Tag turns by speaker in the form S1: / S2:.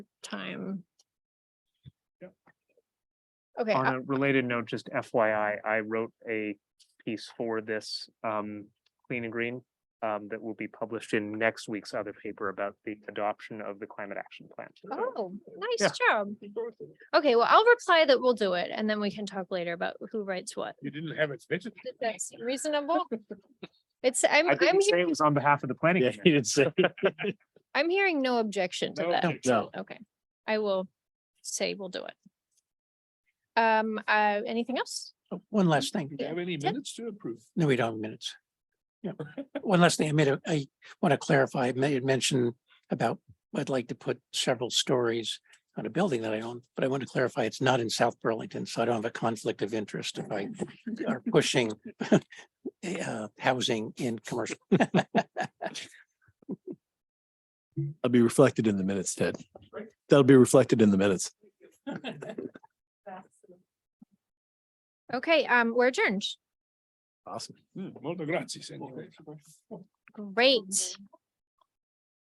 S1: time.
S2: Yep.
S1: Okay,
S2: On
S1: uh,
S2: a related note, just FYI, I wrote a piece for this um Clean and Green. Um, that will be published in next week's other paper about the adoption of the climate action plan.
S1: oh,
S2: Yeah.
S1: nice job. Okay, well, I'll reply that we'll do it and then we can talk later about who writes what.
S3: You didn't have it fitted.
S1: If That's reasonable. It's, I'm,
S2: I
S1: I'm,
S2: didn't
S1: hea-
S2: say it was on behalf of the planning.
S3: Yeah,
S2: commission.
S3: he didn't say.
S1: I'm hearing no objection to
S3: No
S1: that.
S3: objection. No.
S1: Okay, I will say we'll do it. Um, uh, anything else?
S4: Oh, One last thing.
S3: Do you have any
S1: Yeah.
S3: minutes to approve?
S4: No, we don't have minutes. Yeah. One last thing, I made a, I want to clarify, I made mention about, I'd like to put several stories on a building that I own, but I want to clarify, it's not in South Burlington, so I don't have a conflict of interest if I are pushing uh, housing in commercial.
S5: I'll be reflected in the minutes, Ted. That'll be reflected in the minutes.
S1: Okay, um, we're adjourned.
S5: Awesome.
S3: Hmm, Molto grazie, signore.
S1: Great.